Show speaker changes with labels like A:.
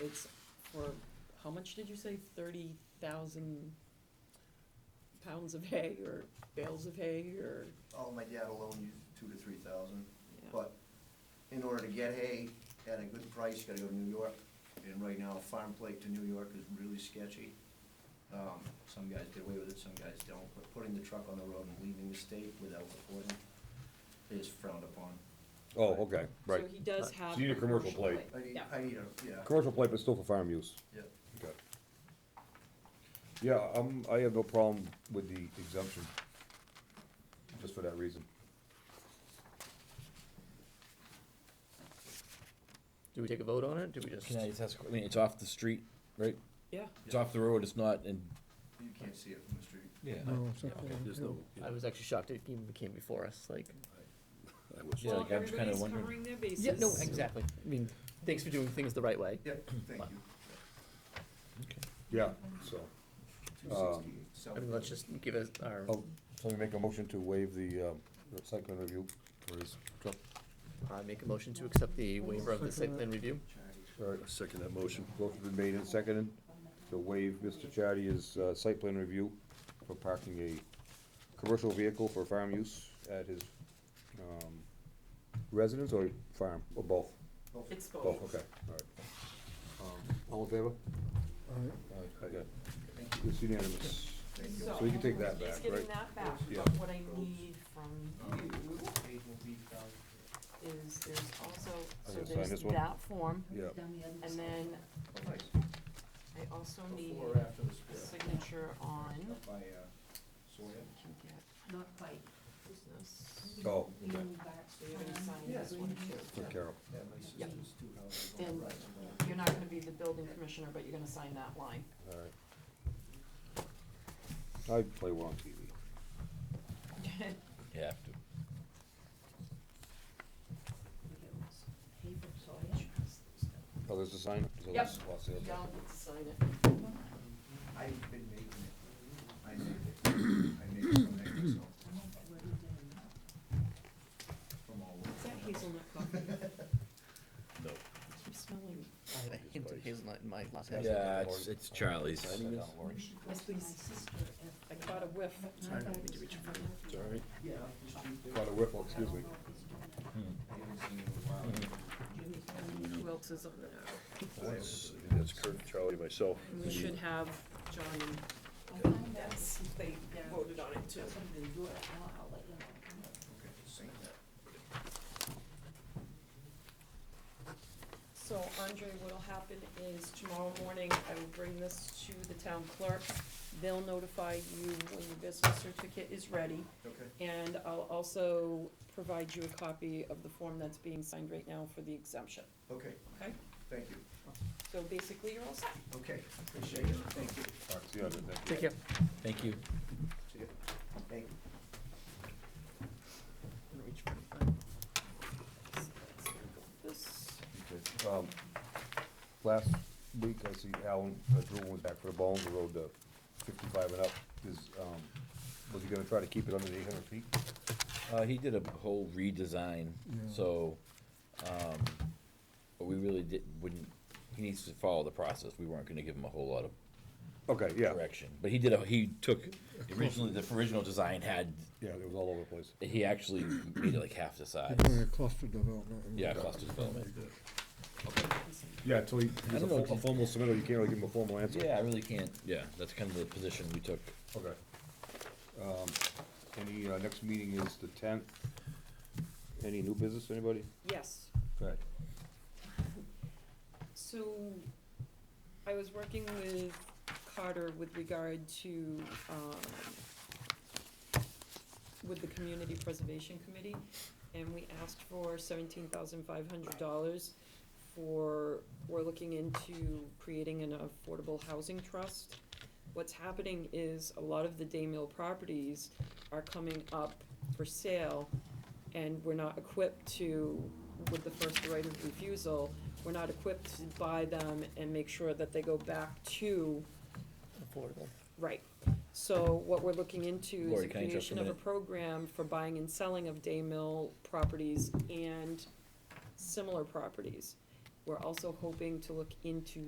A: it's for, how much did you say, thirty thousand pounds of hay or bales of hay or?
B: Oh, my dad alone used two to three thousand,
A: Yeah.
B: but in order to get hay at a good price, you gotta go to New York. And right now, farm plate to New York is really sketchy. Um, some guys get away with it, some guys don't, but putting the truck on the road and leaving the state without reporting is frowned upon.
C: Oh, okay,
A: So he
C: right.
A: does have.
C: So you need a commercial plate.
B: I need,
A: Yeah.
B: I need a, yeah,
C: Commercial plate, but still for farm use.
B: yeah.
C: Okay. Yeah, um, I have no problem with the exemption, just for that reason.
D: Do we take a vote on it? Do we just?
E: Can I just ask, I mean, it's off the street, right?
A: Yeah,
E: It's off the road, it's not in.
B: You can't see it from the street.
E: Yeah.
D: Okay. I was actually shocked it even came before us, like.
E: Yeah,
A: well,
E: like, I'm just kinda
A: everybody's
E: wondering-
A: covering their bases.
D: Yeah, no, exactly. I mean, thanks for doing things the right way.
B: Yep, thank you.
C: Yeah, so,
B: Two
C: Um,
B: sixty-eight, so.
D: I mean, let's just give us our,
C: oh, so we make a motion to waive the, um, the site plan review for his truck.
D: I uh, make a motion to accept the waiver of the site plan review.
C: All right, second that motion. Both have been made and seconded to waive Mr. Chatty's, uh, site plan review for parking a commercial vehicle for farm use at his, um, residence or farm, or both?
A: It's
C: Both,
A: both.
C: Oh, okay, all right. Um, All in favor? Aye. Okay. It's unanimous. So you can take that back,
A: He's getting
C: right?
A: that back,
C: Yeah.
A: but what I need from you
B: Eight will be uh, oh, found.
A: is there's also,
C: I'm
A: so
C: gonna sign
A: there's
C: this one.
A: that form.
C: Yeah.
A: And then
B: Oh, nice.
A: I also need
B: Before or after the
A: a
B: split?
A: signature on,
B: Up by, uh, Sawyer.
A: I can get
F: Not quite.
A: business.
C: Oh,
F: We
C: okay,
F: moved back.
A: So you're gonna sign this one too.
C: for Carol.
B: Yeah, my sister's two houses on the
A: And
B: right.
A: you're not gonna be the building commissioner, but you're gonna sign that line.
C: All right. I play well on TV.
E: You have to.
F: Paper soil.
C: Oh, there's a sign? So
A: Yep.
C: this is what's the
A: You
C: other-
A: don't get to sign it.
B: I've been making it. I made it. I made it from there myself, from all
A: Is
B: over.
A: that hazelnut coffee? I
E: No.
A: keep smelling.
D: I have a hint of hazelnut in my latte.
E: Yeah, it's, it's Charlie's.
C: Signing this?
A: Yes, please. I caught a whiff.
F: Sorry, I need to reach for
E: It's all right.
B: Yeah, up the street there.
C: Got a whiffle, Oh, excuse me.
E: Hmm,
B: I haven't seen it in a while.
A: Who else is on there?
C: That's-
G: That's Kurt, Charlie, myself.
A: And we should have John and Yes, they voted on it too.
B: Okay, same there.
A: So Andre, what'll happen is tomorrow morning, I will bring this to the town clerk. They'll notify you when your business certificate is ready.
B: Okay.
A: And I'll also provide you a copy of the form that's being signed right now for the exemption,
B: Okay,
A: okay?
B: thank you.
A: So basically, you're all set.
B: Okay, appreciate it, thank you.
C: All right, see you on the next.
D: Take care.
E: Thank you.
B: See ya. Thank you.
D: I'm gonna reach for it.
A: This,
C: Okay, um, Last week, I see Alan uh, Drew was back for the bones, the road to fifty-five and up. Is, um, was he gonna try to keep it under the eight hundred feet?
E: Uh, he did a whole redesign, so, um, but we really did, wouldn't, he needs to follow the process. We weren't gonna give him a whole lot of
C: Okay, yeah.
E: direction. But he did, a he took, originally, the original design had,
C: Yeah, it was all over the place.
E: he actually made it like half the size.
G: Doing a cluster development.
E: Yeah, cluster development.
C: Yeah, until he, he's
E: I
C: a
E: don't know,
C: fo- a
E: did-
C: formal submittal, you can't really give him a formal answer.
E: Yeah, I really can't, yeah, that's kind of the position we took.
C: Okay. Um, Any, uh, next meeting is the tenth. Any new business, anybody?
A: yes.
C: Right.
A: So I was working with Carter with regard to, um, with the Community Preservation Committee, and we asked for seventeen thousand five hundred dollars for, we're looking into creating an affordable housing trust. What's happening is a lot of the day mill properties are coming up for sale, and we're not equipped to, with the first right of refusal, we're not equipped to buy them and make sure that they go back to,
D: Affordable.
A: right. So what we're looking into is
E: Lori,
A: the
E: can I interrupt for a
A: creation of a
E: minute?
A: program for buying and selling of day mill properties and similar properties. We're also hoping to look into